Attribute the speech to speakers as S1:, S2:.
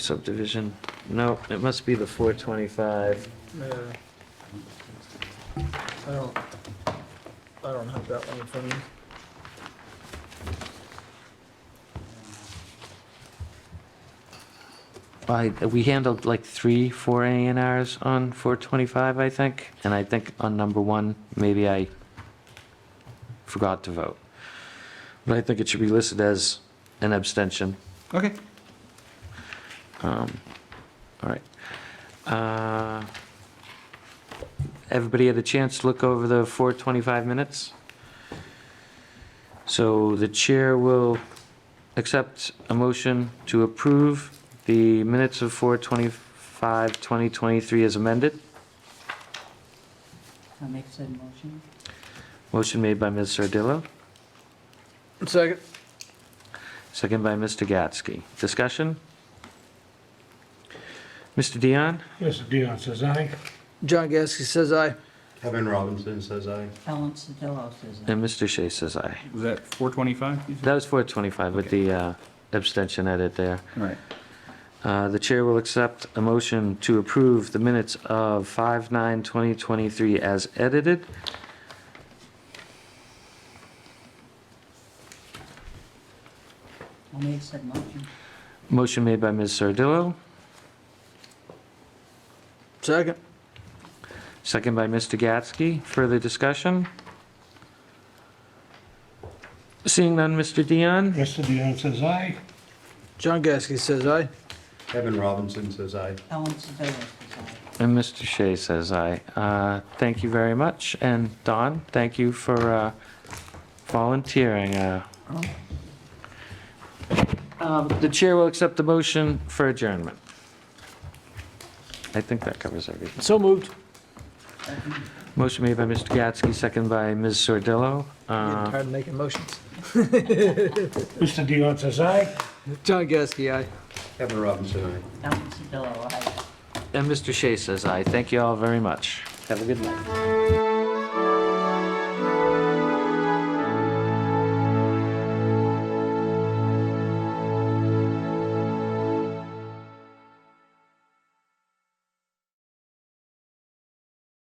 S1: subdivision. No, it must be the 425.
S2: Yeah. I don't, I don't have that one in front of me.
S1: I, we handled like three, four A and Rs on 425, I think. And I think on number one, maybe I forgot to vote. But I think it should be listed as an abstention.
S3: Okay.
S1: Um, All right. Uh, Everybody had a chance to look over the 425 minutes? So the chair will accept a motion to approve the minutes of 425, 2023 as amended.
S4: I'll make said motion.
S1: Motion made by Ms. Sardillo,
S2: Second.
S1: second by Mr. Gatsky. Discussion? Mr. Dion?
S5: Mr. Dion says aye.
S2: John Gasky says aye.
S6: Kevin Robinson says aye.
S4: Ellen Sodillo says aye.
S1: And Mr. Shea says aye.
S3: Was that 425? you said?
S1: That was 425 with the uh, abstention edit there.
S3: All right.
S1: Uh, The chair will accept a motion to approve the minutes of 5/9/2023 as edited.
S4: I'll make said motion.
S1: Motion made by Ms. Sardillo,
S2: Second.
S1: second by Mr. Gatsky. Further discussion? Seeing none, Mr. Dion?
S5: Mr. Dion says aye.
S2: John Gasky says aye.
S6: Kevin Robinson says aye.
S4: Ellen Sodillo says aye.
S1: And Mr. Shea says aye. Uh, Thank you very much. And Don, thank you for uh, volunteering. uh. Um, The chair will accept the motion for adjournment. I think that covers everything.
S2: So moved.
S1: Motion made by Mr. Gatsky, second by Ms. Sordillo.
S2: Getting
S1: Uh,
S2: tired of making motions.
S5: Mr. Dion says aye.
S2: John Gasky, aye.
S6: Kevin Robinson, aye.
S4: Ellen Sodillo aye.
S1: And Mr. Shea says aye. Thank you all very much. Have a good night.